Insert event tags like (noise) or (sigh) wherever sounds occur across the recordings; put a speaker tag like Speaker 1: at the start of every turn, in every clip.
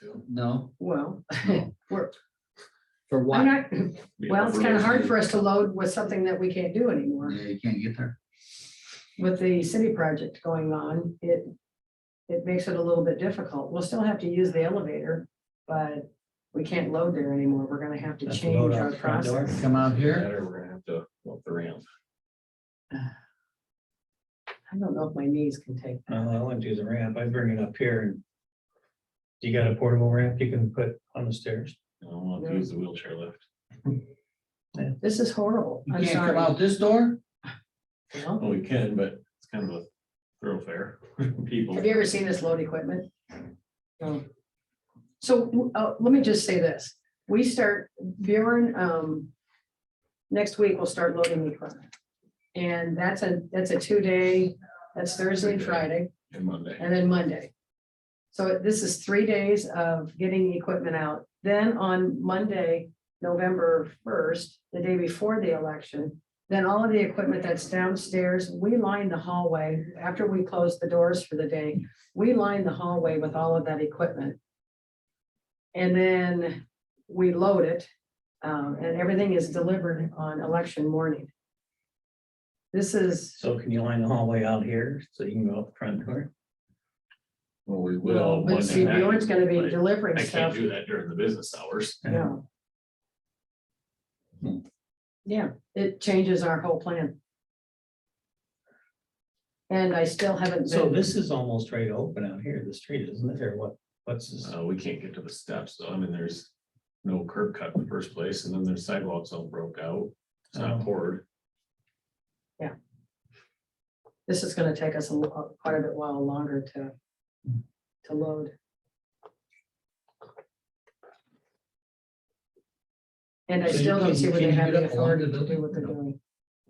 Speaker 1: to.
Speaker 2: No,
Speaker 3: Well, (laughs) we're,
Speaker 2: for
Speaker 3: I'm
Speaker 2: what?
Speaker 3: not, well, it's kind of hard for us to load with something that we can't do anymore.
Speaker 2: Yeah, you can't get there.
Speaker 3: With the city project going on, it, it makes it a little bit difficult. We'll still have to use the elevator, but we can't load there anymore. We're gonna have to
Speaker 2: That's the
Speaker 3: change
Speaker 2: load out
Speaker 3: our
Speaker 2: the front door.
Speaker 3: process.
Speaker 2: Come out here.
Speaker 1: Better, we're gonna have to walk the ramp.
Speaker 3: I don't know if my knees can take
Speaker 4: I
Speaker 3: that.
Speaker 4: don't know, Uh, I wouldn't do the ramp, I'd bring it up here and. You got a portable ramp you can put on the stairs?
Speaker 1: I don't want to use the wheelchair lift.
Speaker 3: This is horrible.
Speaker 2: You
Speaker 3: I'm
Speaker 2: can't come
Speaker 3: sorry.
Speaker 2: out this door?
Speaker 3: Well,
Speaker 1: Well, we can, but it's kind of a thoroughfare. People.
Speaker 3: Have you ever seen this load equipment? No. So, uh, let me just say this, we start, Bjorn, um, next week we'll start loading the equipment. And that's a, that's a two-day, that's Thursday and Friday,
Speaker 1: And Monday.
Speaker 3: and then Monday. So this is three days of getting the equipment out. Then on Monday, November first, the day before the election, then all of the equipment that's downstairs, we line the hallway after we close the doors for the day. We line the hallway with all of that equipment. And then we load it, um, and everything is delivered on election morning. This is.
Speaker 4: So can you line the hallway out here so you can go up front door?
Speaker 1: Well, we will.
Speaker 3: Well, but
Speaker 1: Monday
Speaker 3: see,
Speaker 1: night,
Speaker 3: Bjorn's gonna
Speaker 1: but
Speaker 3: be delivering
Speaker 1: I can't
Speaker 3: stuff,
Speaker 1: do that during the business hours.
Speaker 4: that.
Speaker 3: yeah.
Speaker 2: Hmm.
Speaker 3: Yeah, it changes our whole plan. And I still haven't
Speaker 4: So
Speaker 3: been,
Speaker 4: this is almost ready to open out here, the street, isn't it, or what, what's this?
Speaker 1: Uh, we can't get to the steps, though. I mean, there's no curb cut in the first place, and then there's sidewalks all broke out. It's not
Speaker 4: Oh.
Speaker 1: poured.
Speaker 3: this is gonna take us a lo- quite a bit while longer to, to load. And I
Speaker 2: So you
Speaker 3: still don't
Speaker 2: couldn't-
Speaker 3: see
Speaker 2: you
Speaker 3: where they
Speaker 2: can't
Speaker 3: have
Speaker 2: get
Speaker 3: the
Speaker 2: up along
Speaker 3: authority
Speaker 2: the
Speaker 3: to do what they're
Speaker 2: building?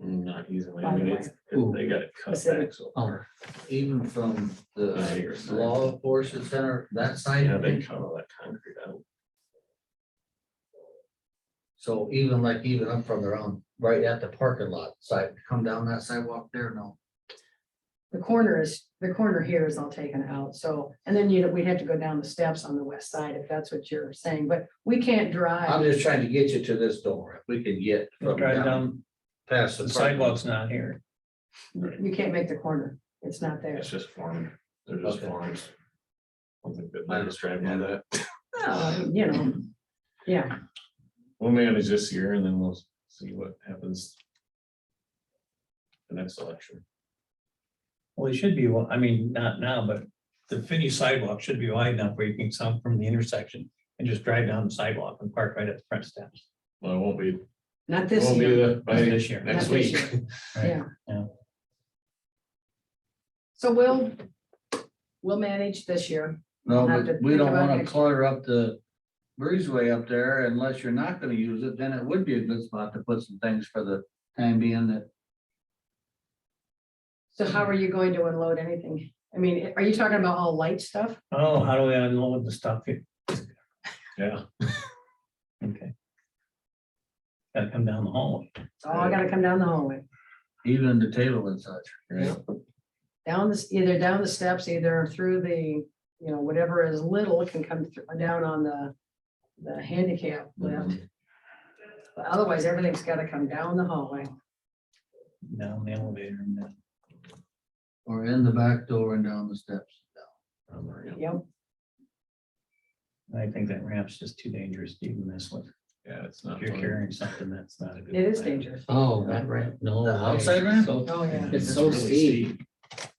Speaker 3: doing.
Speaker 1: Not easily.
Speaker 3: By
Speaker 1: I
Speaker 3: the
Speaker 1: mean,
Speaker 3: way.
Speaker 1: it's, they gotta cut back. so
Speaker 2: Or Oh, even from
Speaker 1: Yeah,
Speaker 2: the
Speaker 1: you're right.
Speaker 2: law enforcement center, that side.
Speaker 1: Yeah,
Speaker 2: of
Speaker 1: they
Speaker 2: it.
Speaker 1: cut all that concrete out.
Speaker 2: So even like even up from their own, right at the parking lot side, come down that sidewalk there, no.
Speaker 3: The corner is, the corner here is all taken out, so, and then, you know, we'd have to go down the steps on the west side, if that's what you're saying, but we can't
Speaker 2: I'm
Speaker 3: drive.
Speaker 2: just trying to get you to this door. If we can get from
Speaker 4: Drive
Speaker 2: down
Speaker 4: down,
Speaker 2: past
Speaker 4: the
Speaker 2: the parking lot.
Speaker 4: sidewalk's not here.
Speaker 3: You can't make the corner, it's not there.
Speaker 1: It's just formed. They're just
Speaker 2: Okay.
Speaker 1: forms. I don't think that
Speaker 2: I
Speaker 1: they're just driving on that.
Speaker 3: Oh, You know, yeah,
Speaker 1: We'll manage this year and then we'll see what happens. The next election.
Speaker 4: Well, it should be, wa- I mean, not now, but the finished sidewalk should be wide enough where you can come from the intersection and just drive down the sidewalk and park right at the front steps.
Speaker 1: Well, it won't be,
Speaker 3: not
Speaker 1: it
Speaker 3: this
Speaker 1: won't be
Speaker 3: year.
Speaker 1: the, by
Speaker 4: This year.
Speaker 1: next
Speaker 3: Not this
Speaker 1: week. (laughs)
Speaker 3: year. Yeah.
Speaker 4: Yeah.
Speaker 3: So we'll, we'll manage this year.
Speaker 2: No,
Speaker 3: Have to
Speaker 2: but we
Speaker 3: think
Speaker 2: don't
Speaker 3: about
Speaker 2: wanna
Speaker 3: next-
Speaker 2: clutter up the breezeway up there unless you're not gonna use it, then it would be a good spot to put some things for the time being that.
Speaker 3: So how are you going to unload anything? I mean, are you talking about all light stuff?
Speaker 4: Oh, how do we unload the stuff here?
Speaker 1: Yeah,
Speaker 4: (laughs) Okay. Gotta come down the hallway.
Speaker 3: Oh, I gotta come down the hallway,
Speaker 2: Even the table and such.
Speaker 1: yeah.
Speaker 3: down this, either down the steps, either through the, you know, whatever is little can come thr- down on the, the handicap lift.
Speaker 1: Mhm.
Speaker 3: But otherwise, everything's gotta come down the hallway.
Speaker 4: down the elevator and then.
Speaker 2: Or in the back door and down the steps.
Speaker 1: I'm already up.
Speaker 3: Yep.
Speaker 4: I think that ramp's just too dangerous to even mess with.
Speaker 1: Yeah, it's
Speaker 4: If
Speaker 1: not.
Speaker 4: you're
Speaker 1: fun.
Speaker 4: carrying something that's not a good.
Speaker 3: It is
Speaker 4: idea.
Speaker 3: dangerous.
Speaker 5: Oh, that ramp, no.
Speaker 2: The
Speaker 5: way.
Speaker 2: outside ramp?
Speaker 5: So-
Speaker 3: Oh, yeah.
Speaker 5: It's so
Speaker 1: really
Speaker 5: steep.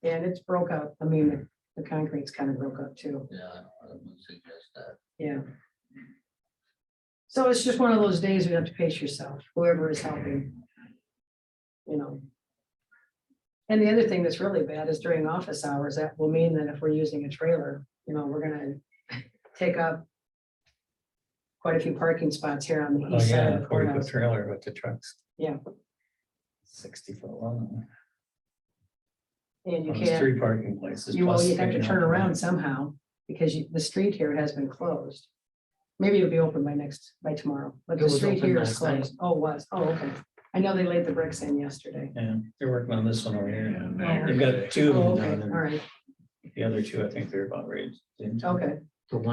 Speaker 3: And it's broke up. I mean, the- the concrete's kind of broke up too.
Speaker 2: Yeah, I don't- I wouldn't suggest that.
Speaker 3: Yeah. So it's just one of those days you have to pace yourself, whoever is helping. You know. And the other thing that's really bad is during office hours, that will mean that if we're using a trailer, you know, we're gonna take up. Quite a few parking spots here on the
Speaker 4: Oh,
Speaker 3: east side
Speaker 4: yeah,
Speaker 3: of the
Speaker 4: forty foot
Speaker 3: courthouse.
Speaker 4: trailer with the trucks.
Speaker 3: Yeah.
Speaker 4: Sixty foot long.
Speaker 3: And you
Speaker 4: Well, There's
Speaker 3: can't,
Speaker 4: three parking places.
Speaker 3: you will,
Speaker 4: plus
Speaker 3: you have to
Speaker 4: picking up
Speaker 3: turn
Speaker 4: the
Speaker 3: around
Speaker 4: ramp.
Speaker 3: somehow, because you- the street here has been closed. Maybe it'll be open by next, by tomorrow, but
Speaker 5: It
Speaker 3: the
Speaker 5: was
Speaker 3: street
Speaker 5: open
Speaker 3: here
Speaker 5: last
Speaker 3: is
Speaker 5: night.
Speaker 3: closed. Oh, it was, oh, okay. I know they laid the bricks in yesterday.
Speaker 4: Yeah, they're working on this one over here.
Speaker 1: Yeah,
Speaker 4: and
Speaker 1: now
Speaker 4: They've
Speaker 1: you're-
Speaker 4: got two
Speaker 3: Oh,
Speaker 4: of
Speaker 3: okay,
Speaker 4: them
Speaker 3: all
Speaker 4: done,
Speaker 3: right, Oh,
Speaker 4: and the other two, I think they're about ready. to-
Speaker 3: okay,